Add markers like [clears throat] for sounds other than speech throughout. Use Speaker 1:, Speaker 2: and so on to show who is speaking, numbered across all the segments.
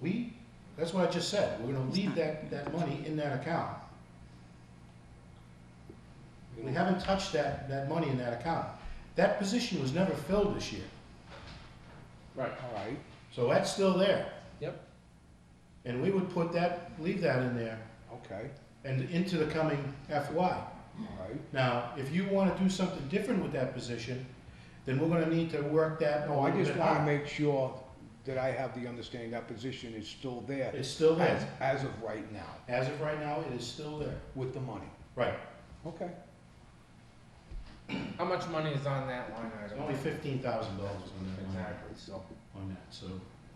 Speaker 1: We, that's what I just said, we're gonna leave that, that money in that account. We haven't touched that, that money in that account. That position was never filled this year,
Speaker 2: Right,
Speaker 3: All right,
Speaker 1: so that's still there.
Speaker 2: Yep.
Speaker 1: And we would put that, leave that in there
Speaker 3: okay,
Speaker 1: and into the coming FY.
Speaker 3: all right.
Speaker 1: Now, if you wanna do something different with that position, then we're gonna need to work that a
Speaker 3: No, Oh, I
Speaker 1: little
Speaker 3: just
Speaker 1: bit
Speaker 3: wanna
Speaker 1: out.
Speaker 3: make sure that I have the understanding that position is still there
Speaker 1: It's still
Speaker 3: as,
Speaker 1: there.
Speaker 3: as of right now,
Speaker 1: As of right now, it is still there.
Speaker 3: with the money.
Speaker 1: Right,
Speaker 3: Okay,
Speaker 2: how much money is on that line
Speaker 1: There's
Speaker 2: item?
Speaker 1: only fifteen thousand dollars on that, line-
Speaker 2: Exactly, so
Speaker 1: on that, so.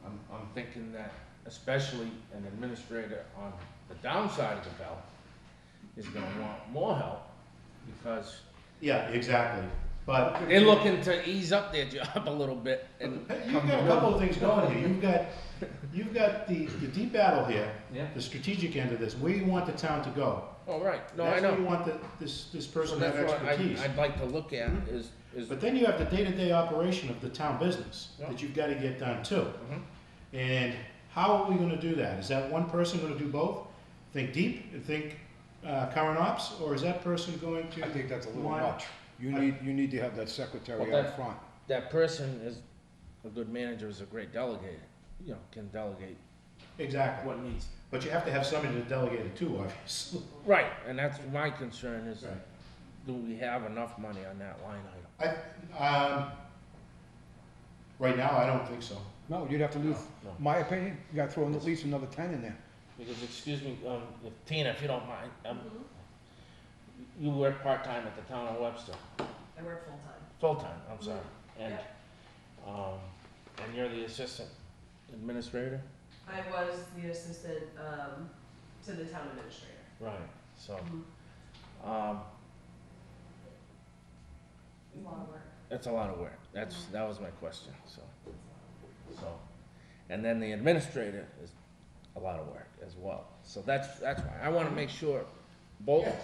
Speaker 2: I'm, I'm thinking that especially an administrator on the downside of the belt is gonna want more help because
Speaker 1: Yeah, exactly, but.
Speaker 2: they're looking to ease up their [laughs] job a little bit and
Speaker 1: Hey, You've
Speaker 2: come
Speaker 1: got a
Speaker 2: to
Speaker 1: couple
Speaker 2: work.
Speaker 1: of things going here. You've got, you've got the, the deep battle here,
Speaker 2: Yeah,
Speaker 1: the strategic end of this, where you want the town to go.
Speaker 2: all right, no, I
Speaker 1: That's where you
Speaker 2: know.
Speaker 1: want the, this, this
Speaker 2: So
Speaker 1: person to have
Speaker 2: that's what I,
Speaker 1: expertise.
Speaker 2: I'd like to look at is, is,
Speaker 1: But then you have the day-to-day operation of the town business
Speaker 2: Yeah.
Speaker 1: that you've gotta get done too.
Speaker 2: Mhm.
Speaker 1: And how are we gonna do that? Is that one person gonna do both? Think deep and think, uh, current ops, or is that person going
Speaker 3: I
Speaker 1: to?
Speaker 3: think that's a little
Speaker 1: Why-
Speaker 3: much. You
Speaker 1: I-
Speaker 3: need, you need to have that secretary
Speaker 2: Well,
Speaker 3: out
Speaker 2: that-
Speaker 3: front.
Speaker 2: that person is, a good manager is a great delegator, you know, can delegate
Speaker 1: Exactly,
Speaker 2: what needs.
Speaker 1: but you have to have somebody to delegate it to, [laughs] obviously.
Speaker 2: Right, and that's my concern is,
Speaker 1: Right.
Speaker 2: do we have enough money on that line item?
Speaker 1: I, um, right now, I don't think so.
Speaker 3: No, you'd have to lose,
Speaker 2: No, no.
Speaker 3: my opinion, you gotta throw in at least another ten in there.
Speaker 2: Because, excuse me, um, if Tina, if you don't mind, um,
Speaker 4: Mm-hmm.
Speaker 2: you work part-time at the town of Webster,
Speaker 4: I work full-time.
Speaker 2: full-time, I'm sorry, and, um, and you're the assistant administrator?
Speaker 4: I was the assistant, um, to the town administrator.
Speaker 2: Right. So,
Speaker 4: Mm-hmm.
Speaker 2: um,
Speaker 4: A lot of work.
Speaker 2: that's a lot of work, that's, that was my question, so, so. And then the administrator is a lot of work as well, so that's, that's why, I wanna make sure both
Speaker 1: Yeah.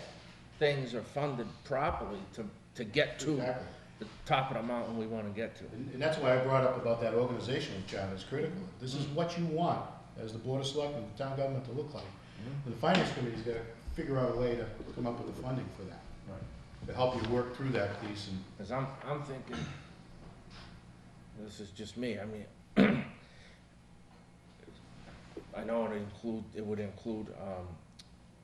Speaker 2: things are funded properly to, to get to
Speaker 1: Exactly.
Speaker 2: the top of the mountain we wanna get to.
Speaker 1: And and that's why I brought up about that organizational chart is critical. This
Speaker 2: Mm.
Speaker 1: is what you want as the Board of Selectmen, the town government to look like.
Speaker 2: Mm.
Speaker 1: And The Finance Committee's gotta figure out a way to come up with the funding for that,
Speaker 2: Right.
Speaker 1: to help you work through that piece and.
Speaker 2: Cause I'm, I'm thinking, this is just me, I mean, [clears throat] I know it include, it would include, um,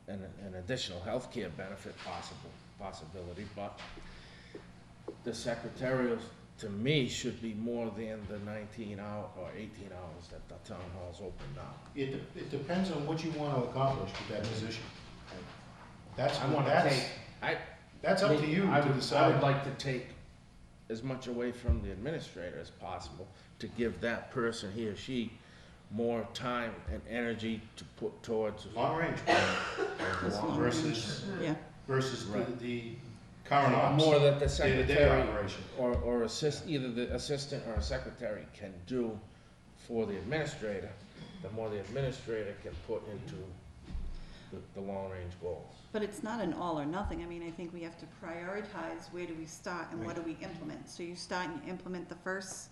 Speaker 2: an, an additional healthcare benefit possible, possibility, but the secretarial, to me, should be more than the nineteen hour or eighteen hours that the town hall's open now.
Speaker 1: It, de- it depends on what you wanna accomplish with that position. That's,
Speaker 2: I wanna
Speaker 1: that's,
Speaker 2: take, I,
Speaker 1: that's up to you
Speaker 2: I
Speaker 1: to
Speaker 2: would, I would
Speaker 1: decide.
Speaker 2: like to take as much away from the administrator as possible to give that person, he or she, more time and energy to put towards.
Speaker 1: Long range plan versus,
Speaker 5: Yeah,
Speaker 1: versus the,
Speaker 2: Right.
Speaker 1: the current ops,
Speaker 2: More that the
Speaker 1: day-to-day
Speaker 2: secretary
Speaker 1: operation.
Speaker 2: or, or assist, either the assistant or a secretary can do for the administrator, the more the administrator can put into the, the long-range goals.
Speaker 5: but it's not an all or nothing. I mean, I think we have to prioritize where do we start and what do we implement. So you start and you implement the first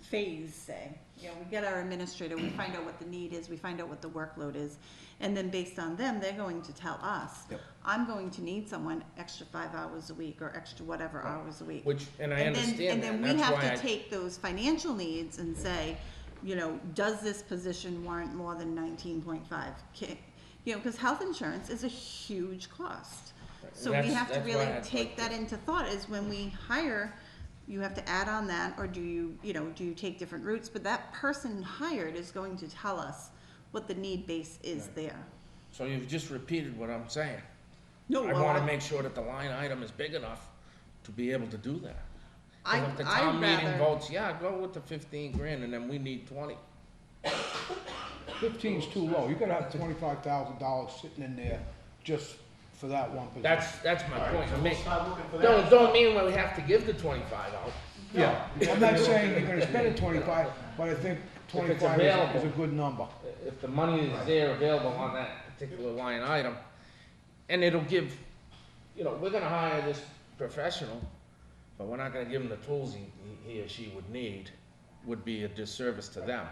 Speaker 5: phase, say. You know, we get our administrator, we find out what the need is, we find out what the workload is. And then based on them, they're going to tell us,
Speaker 3: Yep.
Speaker 5: I'm going to need someone extra five hours a week or extra whatever hours a week.
Speaker 2: Which, and I
Speaker 5: And then-
Speaker 2: understand that,
Speaker 5: And
Speaker 2: and
Speaker 5: then we
Speaker 2: that's why I.
Speaker 5: have to take those financial needs and say, you know, does this position warrant more than nineteen point five? You know, because health insurance is a huge cost.
Speaker 2: and
Speaker 5: So we
Speaker 2: that's-
Speaker 5: have to
Speaker 2: that's why
Speaker 5: really
Speaker 2: I'd like
Speaker 5: take that
Speaker 2: to-
Speaker 5: into thought is when we hire, you have to add on that, or do you, you know, do you take different routes? But that person hired is going to tell us what the need base is there.
Speaker 2: So you've just repeated what I'm saying.
Speaker 5: No,
Speaker 2: I
Speaker 5: well,
Speaker 2: wanna
Speaker 5: I-
Speaker 2: make sure that the line item is big enough to be able to do that. 'Cause
Speaker 5: I,
Speaker 2: If the
Speaker 5: I'd
Speaker 2: town meeting
Speaker 5: rather,
Speaker 2: votes, yeah, go with the fifteen grand, and then we need twenty.
Speaker 3: Fifteen's too low, you gotta have twenty-five thousand dollars sitting in there just for that one position.
Speaker 2: That's, that's my
Speaker 1: Mm-hmm. All right,
Speaker 2: point.
Speaker 1: so
Speaker 2: I
Speaker 1: we'll
Speaker 2: mean,
Speaker 1: start looking for that.
Speaker 2: don't, don't mean that we have to give the twenty-five out.
Speaker 3: Yeah, I'm not saying you're gonna spend it twenty-five, but I think twenty-five is- is a
Speaker 2: available.
Speaker 3: good number.
Speaker 2: If the money is there available on that particular line item, and it'll give, you know, we're gonna hire this professional, but we're not gonna give him the tools he, he or she would need, would be a disservice to them.